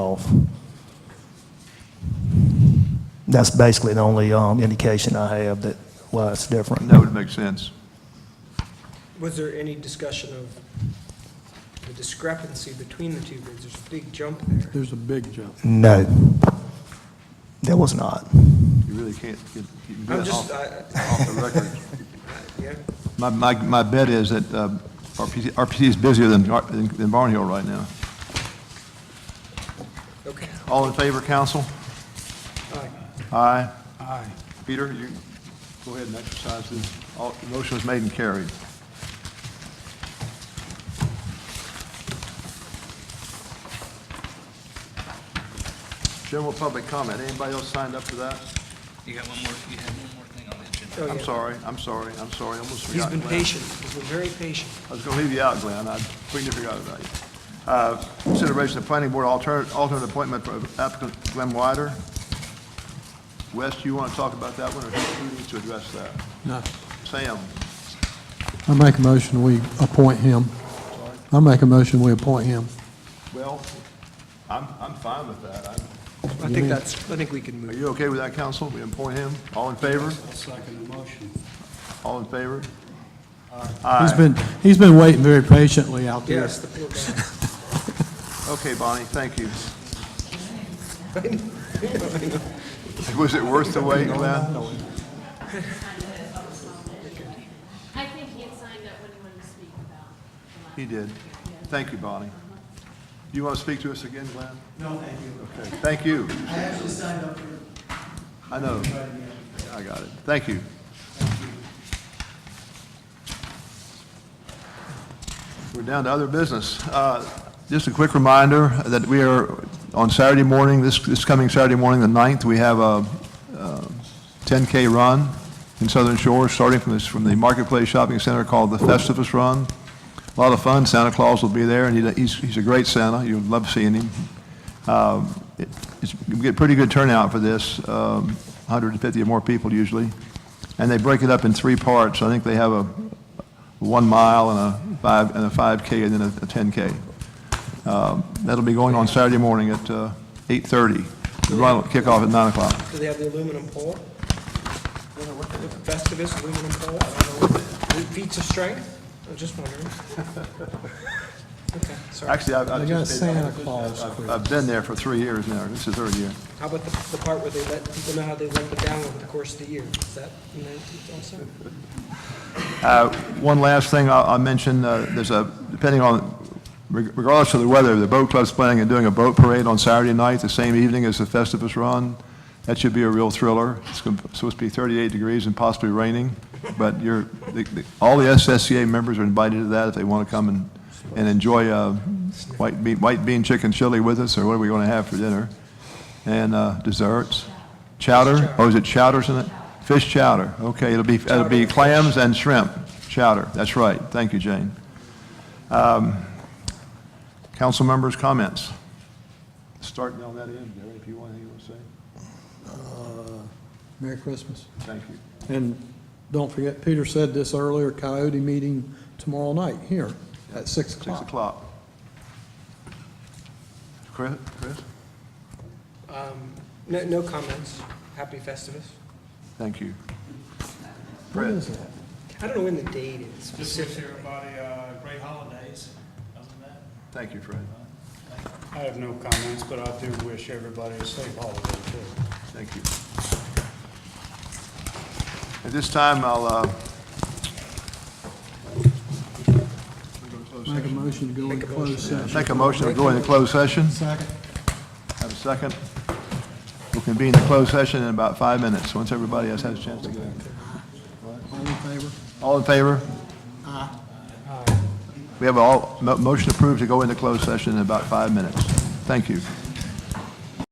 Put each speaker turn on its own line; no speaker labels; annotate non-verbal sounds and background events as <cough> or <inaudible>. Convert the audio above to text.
off. That's basically the only um, indication I have that why it's different.
That would make sense.
Was there any discussion of the discrepancy between the two bids? There's a big jump there.
There's a big jump.
No, there was not.
You really can't get, you can do
I'm
that
just,
off,
I,
off the record.
yeah,
My, my, my bet is that uh, RPC, RPC is busier than, Gar- than than Barn Hill right now.
okay.
All in favor, council?
All right.
Aye. Aye. Peter, you go ahead and exercise the, all, the motion was made and carried. General public comment, anybody else signed up for that?
You got one more, you had one more thing on the agenda.
Oh,
I'm
yeah.
sorry, I'm sorry, I'm sorry, I almost
He's
forgot.
been
Glenn.
patient. He's been very patient.
I was going to leave you out, Glenn. I completely forgot about you. Uh, Consideration of planning board alternate, alternate appointment for applicant Glenn Wider. Wes, you want to talk about that one, or who who needs to address that?
No.
Sam?
I make a motion, we appoint him. I make a motion, we appoint him.
Well, I'm, I'm fine with that. I'm-
I think that's, I think we can move.
Are you okay with that, council? We appoint him? All in favor?
I'll second the motion.
All in favor?
He's been, he's been waiting very patiently out there.
Yes, the poor guy.
Okay, Bonnie, thank you. <laughs> Was it worth the wait, Glenn?
I think he had signed up when he wanted to speak about the last.
He did. Thank you, Bonnie. Do you want to speak to us again, Glenn?
No, thank you.
Okay, Thank you.
I actually signed up for
I know.
inviting me.
I got it. Thank you. We're down to other business. Uh, Just a quick reminder that we are, on Saturday morning, this, this coming Saturday morning, the 9th, we have a uh, 10K run in Southern Shore, starting from this, from the Marketplace Shopping Center called the Festivus Run. A lot of fun. Santa Claus will be there, and he- he's, he's a great Santa. You'll love seeing him. Um, it- It's, you get pretty good turnout for this, um, 150 or more people usually. And they break it up in three parts. I think they have a one mile and a five, and a 5K and then a a 10K. Um, That'll be going on Saturday morning at uh, 8:30. The run will kick off at 9 o'clock.
Do they have the aluminum pole? Festivus aluminum pole? I don't know. Feats of strength? I was just wondering. Okay, sorry.
Actually, I've, I've
They got
just been-
Santa Claus.
I've- I've been there for three years now. This is the third year.
How about the, the part where they let people know how they let it down over the course of the year? Is that in there also?
Uh, One last thing I'll I'll mention, uh, there's a, depending on, reg- regardless of the weather, the boat club's planning on doing a boat parade on Saturday night, the same evening as the Festivus Run. That should be a real thriller. It's gonna- supposed to be 38 degrees and possibly raining, but you're, the- the- all the SSCA members are invited to that if they want to come and, and enjoy uh, white bean, white bean chicken chili with us, or what are we going to have for dinner? And uh, desserts? Chowder? Oh, is it chowders in it? Fish chowder. Okay, it'll be, it'll be clams and shrimp chowder. That's right. Thank you, Jane. Um, Council members' comments? Start down that end, Gary, if you want anything to say.
Merry Christmas.
Thank you.
And don't forget, Peter said this earlier, coyote meeting tomorrow night here at 6
Six
o'clock.
o'clock. Chris? Chris?
Um, No, no comments. Happy Festivus.
Thank you.
What is that?
I don't know when the date is
Just wish
specifically.
everybody uh, great holidays, other than that.
Thank you, Fred.
I have no comments, but I do wish everybody a safe holiday, too.
Thank you. At this time, I'll, uh...
Make a motion to go in closed session.
Make a motion to go into closed session.
Second.
Have a second. We'll convene the closed session in about five minutes, once everybody else has a chance to go in.
All in favor?
All in favor? We have all, mo- motion approved to go into closed session in about five minutes. Thank you.